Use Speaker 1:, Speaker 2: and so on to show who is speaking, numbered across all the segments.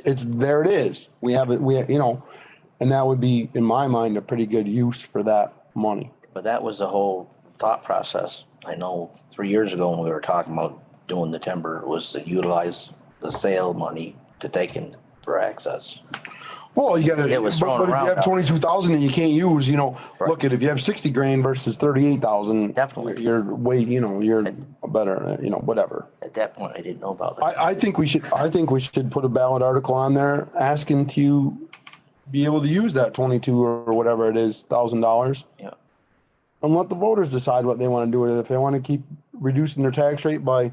Speaker 1: it's, there it is. We have it, we, you know, and that would be, in my mind, a pretty good use for that money.
Speaker 2: But that was the whole thought process. I know three years ago when we were talking about doing the timber was to utilize the sale money to take in for access.
Speaker 1: Well, you gotta,
Speaker 2: It was
Speaker 1: but,
Speaker 2: thrown
Speaker 1: but if
Speaker 2: around.
Speaker 1: you have twenty-two thousand and you can't use, you know,
Speaker 2: Right.
Speaker 1: look at, if you have sixty grand versus thirty-eight thousand.
Speaker 2: Definitely.
Speaker 1: You're way, you know, you're better, uh, you know, whatever.
Speaker 2: At that point, I didn't know about that.
Speaker 1: I, I think we should, I think we should put a ballot article on there asking to be able to use that twenty-two or whatever it is, thousand dollars.
Speaker 2: Yeah.
Speaker 1: And let the voters decide what they wanna do with it. If they wanna keep reducing their tax rate by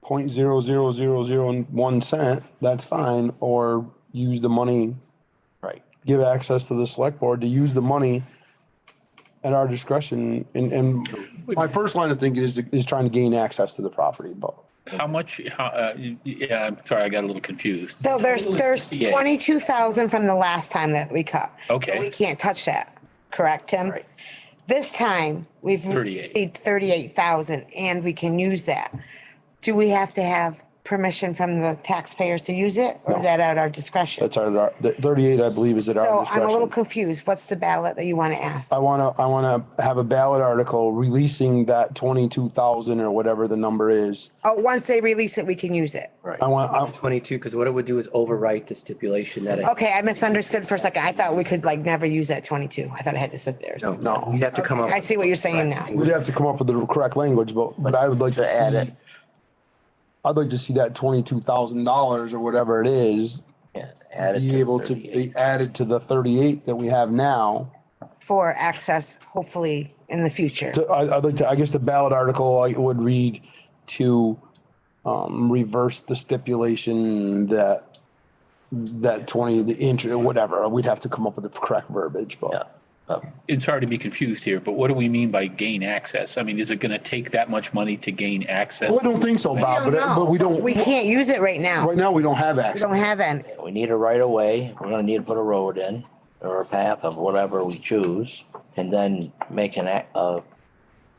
Speaker 1: point zero zero zero zero one cent, that's fine, or use the money
Speaker 2: Right.
Speaker 1: give access to the select board to use the money at our discretion. And, and my first line of thinking is, is trying to gain access to the property, but
Speaker 3: How much, how, uh, yeah, I'm sorry, I got a little confused.
Speaker 4: So there's, there's
Speaker 3: Yeah.
Speaker 4: twenty-two thousand from the last time that we cut.
Speaker 3: Okay.
Speaker 4: We can't touch that, correct, Tim?
Speaker 2: Right.
Speaker 4: This time, we've
Speaker 3: 38.
Speaker 4: received thirty-eight thousand and we can use that. Do we have to have permission from the taxpayers to use it or is that at our discretion?
Speaker 1: that's our, the thirty-eight, I believe, is at our
Speaker 4: So I'm a little
Speaker 1: discretion. Um,
Speaker 4: confused. What's the ballot that you want to ask?
Speaker 1: I want to, I want to have a ballot article releasing that twenty-two thousand or whatever the number is.
Speaker 4: Oh, once they release it, we can use it.
Speaker 2: Right.
Speaker 1: I want, I,
Speaker 5: Twenty-two, because what it would do is overwrite the stipulation that. it-
Speaker 4: Okay, I misunderstood for a second. I thought we could like never use that twenty-two. I thought I had to sit there. So
Speaker 1: no.
Speaker 5: You'd have to come up.
Speaker 4: I see what you're saying now.
Speaker 1: We'd have to come up with the correct language, but, but I would like to
Speaker 2: To add
Speaker 1: see,
Speaker 2: it.
Speaker 1: I'd like to see that twenty-two thousand dollars or whatever it is,
Speaker 2: Yeah. Add it
Speaker 1: be able to
Speaker 2: 38.
Speaker 1: be added to the thirty-eight that we have now.
Speaker 4: For access, hopefully in the future.
Speaker 1: I, I'd like to, I guess the ballot article I would read to um, reverse the stipulation that that twenty, the inch or whatever, we'd have to come up with the correct verbiage,
Speaker 2: Yeah.
Speaker 1: but
Speaker 2: Uh,
Speaker 3: It's hard to be confused here, but what do we mean by gain access? I mean, is it gonna take that much money to gain access?
Speaker 1: Well, I don't think so, Bob,
Speaker 4: don't
Speaker 1: uh, but, but we
Speaker 4: know.
Speaker 1: don't,
Speaker 4: We can't use it right now.
Speaker 1: right now, we don't have
Speaker 4: We
Speaker 1: access.
Speaker 4: don't have any.
Speaker 2: We need a right of way. We're gonna need to put a road in or a path of whatever we choose. And then make an, a, a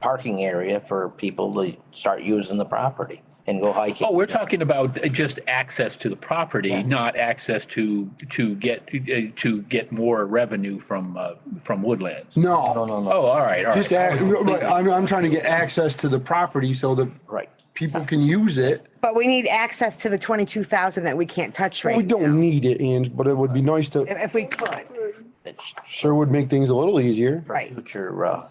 Speaker 2: parking area for people to start using the property and go hiking.
Speaker 3: Oh, we're talking about just access to the property, not access to, to get, uh, to get more revenue from, uh, from woodlands.
Speaker 2: No,
Speaker 1: No,
Speaker 2: no, no.
Speaker 3: Oh, all right, all right.
Speaker 1: just, ac- right, I'm, I'm trying to get access to the property so that
Speaker 2: Right.
Speaker 1: people can use it.
Speaker 4: But we need access to the twenty-two thousand that we can't touch
Speaker 1: We
Speaker 4: right.
Speaker 1: don't need it, Ange, but it would be nice to,
Speaker 4: If if we could,
Speaker 2: It's
Speaker 1: sure would make things a little easier,
Speaker 4: right.
Speaker 2: future, uh,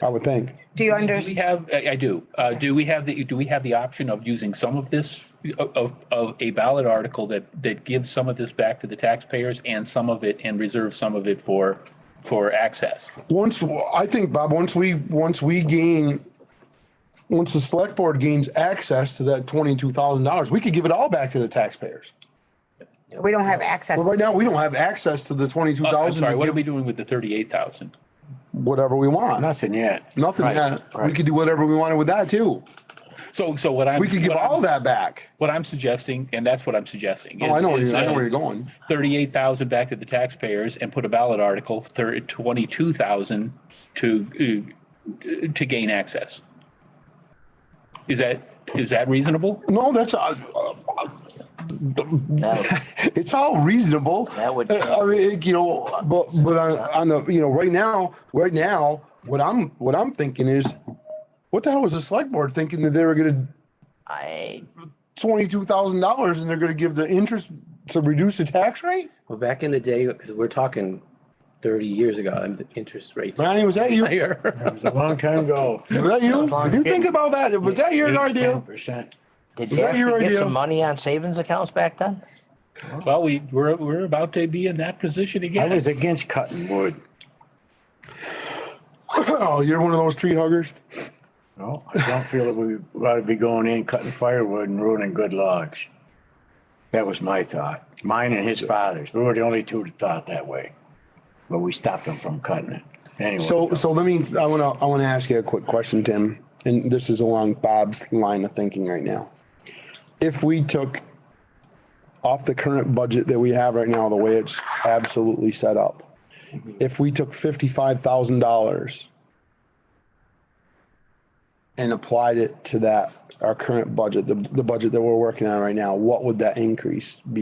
Speaker 1: I would think.
Speaker 4: Do you
Speaker 3: Do we
Speaker 4: understand?
Speaker 3: have, I I do, uh, do we have the, do we have the option of using some of this, of, of a ballot article that, that gives some of this back to the taxpayers and some of it, and reserve some of it for, for access? Uh,
Speaker 1: Once, I think, Bob, once we, once we gain, once the select board gains access to that twenty-two thousand dollars, we could give it all back to the taxpayers.
Speaker 4: We don't have access.
Speaker 1: But right now, we don't have access to the twenty-two
Speaker 3: Uh, I'm
Speaker 1: thousand,
Speaker 3: sorry, what are we doing with the thirty-eight thousand?
Speaker 1: whatever we want.
Speaker 6: Nothing yet.
Speaker 1: Nothing,
Speaker 6: Right,
Speaker 1: yet. we
Speaker 6: right.
Speaker 1: could do whatever we wanted with that too.
Speaker 3: So, so what I'm.
Speaker 1: We could give
Speaker 3: what I'm-
Speaker 1: all that back.
Speaker 3: What I'm suggesting, and that's what I'm suggesting.
Speaker 1: Oh, I
Speaker 3: is-
Speaker 1: know, where
Speaker 3: is,
Speaker 1: you're- I know
Speaker 3: uh,
Speaker 1: where you're going.
Speaker 3: thirty-eight thousand back to the taxpayers and put a ballot article, thir- twenty-two thousand to, uh, to gain access. Is that, is that reasonable?
Speaker 1: No, that's, uh, uh,
Speaker 2: now,
Speaker 1: it's all reasonable.
Speaker 2: That would-
Speaker 1: Uh, I mean, you know, but, but on, on the, you know, right now, right now, what I'm, what I'm thinking is, what the hell was the select board thinking that they were gonna
Speaker 2: I,
Speaker 1: twenty-two thousand dollars and they're gonna give the interest to reduce the tax rate?
Speaker 5: Well, back in the day, because we're talking thirty years ago, and the interest rates.
Speaker 1: Ronnie, was that you? Was
Speaker 5: higher.
Speaker 6: It was a long time ago.
Speaker 1: that you? Did you think about that? Was that your idea?
Speaker 6: Percent.
Speaker 2: did you
Speaker 1: that
Speaker 2: have
Speaker 1: your
Speaker 2: to get
Speaker 1: idea?
Speaker 2: some money on savings accounts back then?
Speaker 3: Well, we, we're, we're about to be in that position
Speaker 6: I
Speaker 3: again.
Speaker 6: was against cutting wood.
Speaker 1: Oh, you're one of those tree huggers?
Speaker 6: No, I don't feel that we ought to be going in cutting firewood and ruining good logs. That was my thought, mine and his father's. We were the only two that thought that way. But we stopped them from cutting it. Anyway.
Speaker 1: So, so let me, I wanna, I wanna ask you a quick question, Tim, and this is along Bob's line of thinking right now. If we took off the current budget that we have right now, the way it's absolutely set up, if we took fifty-five thousand dollars and applied it to that, our current budget, the, the budget that we're working on right now, what would that increase be?